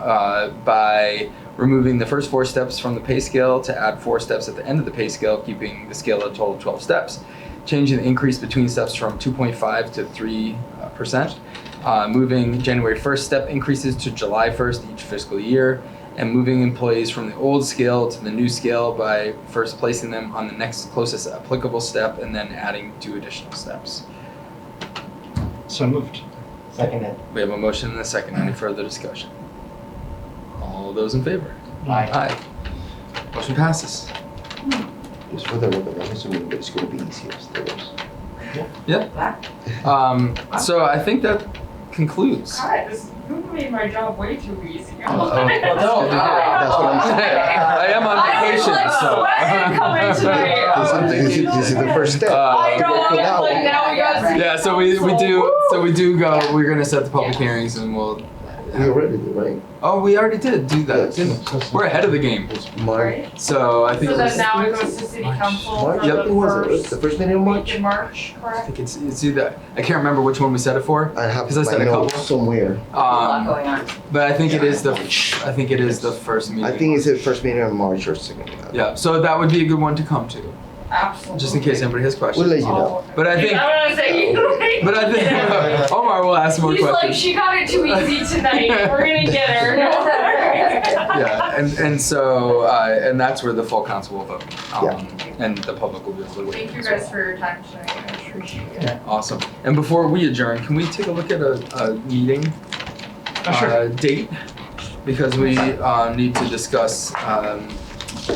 uh, by removing the first four steps from the pay scale to add four steps at the end of the pay scale, keeping the scale a total of 12 steps. Changing the increase between steps from 2.5 to 3%. Uh, moving January 1st step increases to July 1st each fiscal year. And moving employees from the old scale to the new scale by first placing them on the next closest applicable step and then adding two additional steps. So moved. Seconded. We have a motion and a second. Any further discussion? All those in favor? Um, Aye. Aye. Motion passes. Just for the record, I'm assuming that it's going to be easier than theirs. Um, so I think that concludes. God, this, you made my job way too easy. Oh, no, that's what I'm saying. I am on I was vacation, like so. sweating coming tonight. Oh, This is, this is- this is the first step. Uh, I know, Now- like now we got. Yeah, so we, we do so we do go. We're gonna set the public hearings and we'll. We already did, right? Oh, we already did do that. didn't Yes. we? We're ahead of the game. It's March. Right? So I think So it's, then now it goes to city council March, for yep, it was, the it? the first meeting in first week March? in March, I correct? think it's it's either I can't remember which one we set it for. I have 'Cause I my said a notes couple. somewhere. A lot Um, going on. but I think it is the I think it is the first meeting. I think it's the first meeting in March or second. Yeah, so that would be a good one to come to, Absolutely. just in case anybody has We'll questions. let you Oh. know. But I think- I'm gonna say you. But I think Omar will ask more He's like, questions. she got it too easy tonight. We're gonna get her. No worries." Yeah, and and so uh, and that's where the full council will vote. Um, And the public will be able to weigh Thank in you as guys for your time tonight. I appreciate it. well. Awesome. And before we adjourn, can we take a look at a, a meeting Oh, sure. uh, date? Because we uh, need to discuss, um,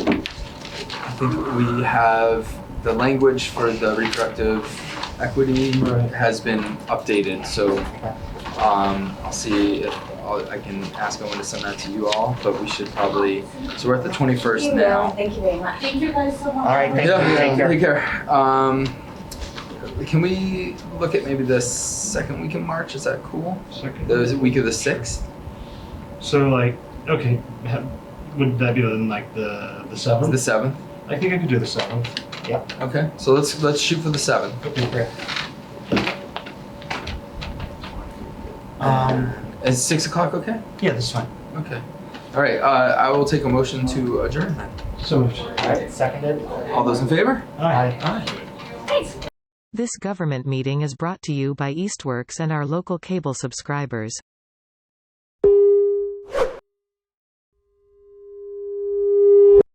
I think we have the language for the reproductive equity Right. has been updated, so um, I'll see if I'll, I can ask Owen to send that to you all, but we should probably, so we're at the 21st now. Thank you very much. Thank you guys so much. All right, thank you. yeah, Take care. Take care. Um, can we look at maybe the second week in March? Is that cool? Second. The week of the sixth. So like, okay, ha- would that be then like the the The seventh? seventh. I think I could do the seventh. Okay. So let's let's shoot for the seventh. Okay, great. Um, Is six o'clock okay? yeah, that's fine. Okay. All right. Uh, I will take a motion to adjourn. Then. So moved. Alright, seconded. All those in favor? Aye. Aye. This government meeting is brought to you by Eastworks and our local cable subscribers.